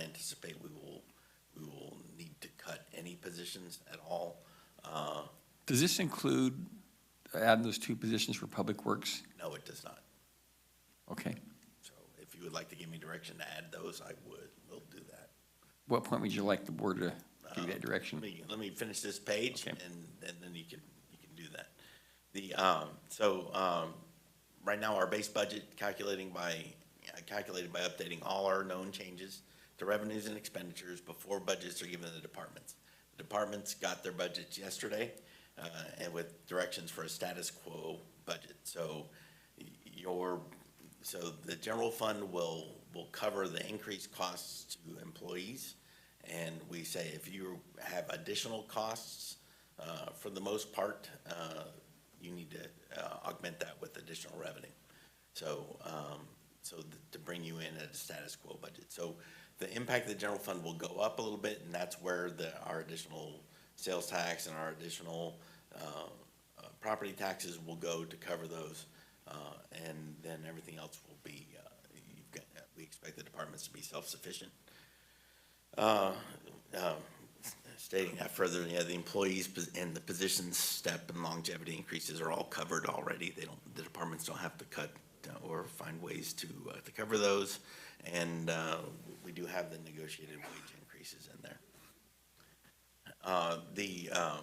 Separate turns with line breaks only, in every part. anticipate we will, we will need to cut any positions at all. Uh,
Does this include adding those two positions for Public Works?
No, it does not.
Okay.
So if you would like to give me direction to add those, I would, we'll do that.
What point would you like the board to give you that
Um, Let
direction?
me, let me finish this page
Okay.
and, and then you can, you can do that. The, um, so, um, right now our base budget calculating by, uh, calculated by updating all our known changes to revenues and expenditures before budgets are given to the departments. The departments got their budgets yesterday, uh, and with directions for a status quo budget. So y- your, so the general fund will, will cover the increased costs to employees. And we say if you have additional costs, uh, for the most part, uh, you need to uh, augment that with additional revenue. So, um, so th- to bring you in at a status quo budget. So the impact of the general fund will go up a little bit, and that's where the, our additional sales tax and our additional, uh, uh, property taxes will go to cover those. Uh, and then everything else will be, uh, you've got, we expect the departments to be self-sufficient stating that further, yeah, the employees pos- and the positions step and longevity increases are all covered already. They don't, the departments don't have to cut uh, or find ways to, uh, to cover those. And, uh, we do have the negotiated wage increases in there. Uh, the, um,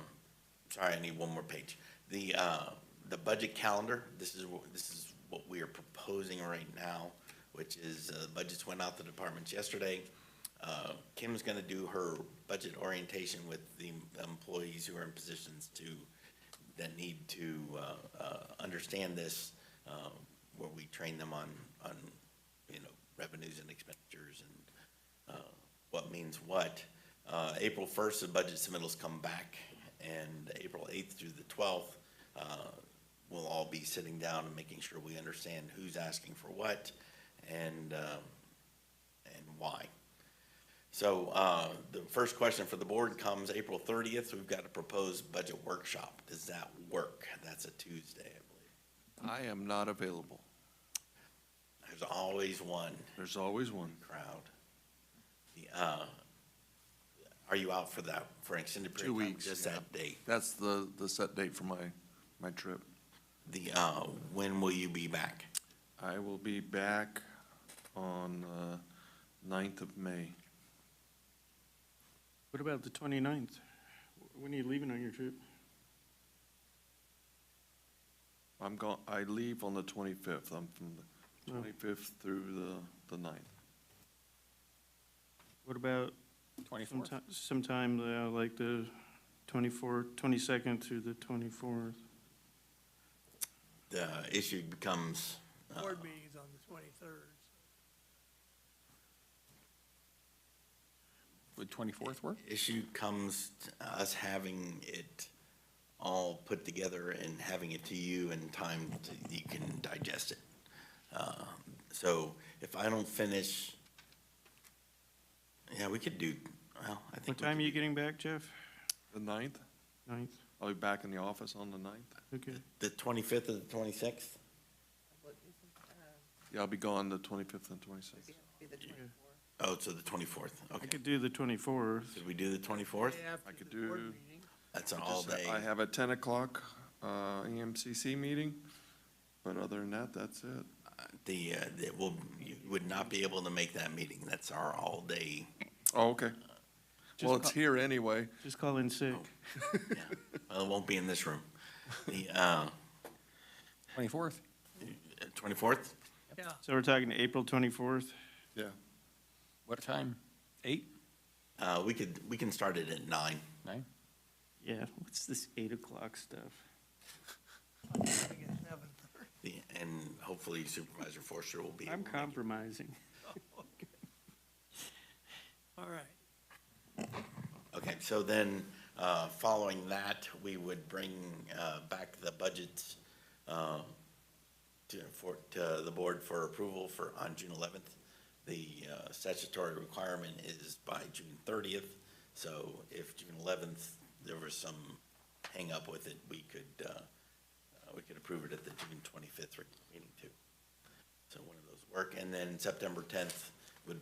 sorry, I need one more page. The, uh, the budget calendar, this is, wh- this is what we are proposing right now, which is, uh, budgets went out to departments yesterday. Uh, Kim's gonna do her budget orientation with the employees who are in positions to, that need to, uh, uh, understand this, uh, where we train them on, on, you know, revenues and expenditures and, uh, what means what. Uh, April first, the budget submittals come back, and April eighth through the twelfth, uh, we'll all be sitting down and making sure we understand who's asking for what and, um, and why. So, uh, the first question for the board comes April thirtieth, we've got a proposed budget workshop. Does that work? That's a Tuesday, I believe.
I am not available.
There's always one
There's always one.
crowd. The, uh, are you out for that, for an extended period
Two
of time?
weeks,
Just
yeah.
that date?
That's the, the set date for my, my trip.
The, uh, when will you be back?
I will be back on the ninth of May.
What about the 29th? When are you leaving on your trip?
I'm gone, I leave on the twenty-fifth. I'm from the
Oh.
twenty-fifth through the, the ninth.
What about someti- sometime, uh, like the 24, 22nd through the 24th?
The issue becomes, uh,
Board meeting's on the twenty-third.
Would 24th work?
issue comes to us having it all put together and having it to you in time to, you can digest it. Uh, So if I don't finish, yeah, we could do, well, I
What
think. we
time are
could
you
do
getting back, Jeff?
The ninth?
9th?
I'll be back in the office on the ninth.
Okay.
The twenty-fifth or the twenty-sixth?
Yeah, I'll be gone the twenty-fifth and twenty-sixth.
Oh, so the twenty-fourth,
I
okay.
could do the 24th.
Should we do the twenty-fourth?
I
After
could
the board
do-
meeting,
That's an all-day.
I have a ten o'clock, uh, EMCC meeting, but other than that, that's it.
The, uh, that will, you would not be able to make that meeting. That's our all-day.
Oh, okay.
Just
Well, it's
co-
here anyway.
Just call in sick.
yeah. Well, it won't be in this room. The, uh,
24th?
twenty-fourth?
Yeah,
So we're talking April 24th?
Yeah,
What time? Eight,
Uh, we could, we can start it at nine.
nine?
Yeah, what's this 8 o'clock stuff?
I guess seven thirty.
The- And hopefully Supervisor Forster will be.
I'm
able to make it.
compromising.
All right,
Okay, so then, uh, following that, we would bring, uh, back the budgets, uh, to, for, to the board for approval for, on June eleventh. The, uh, statutory requirement is by June thirtieth, so if June eleventh, there was some hang up with it, we could, uh, uh, we could approve it at the June twenty-fifth meeting too. So one of those work, and then September tenth,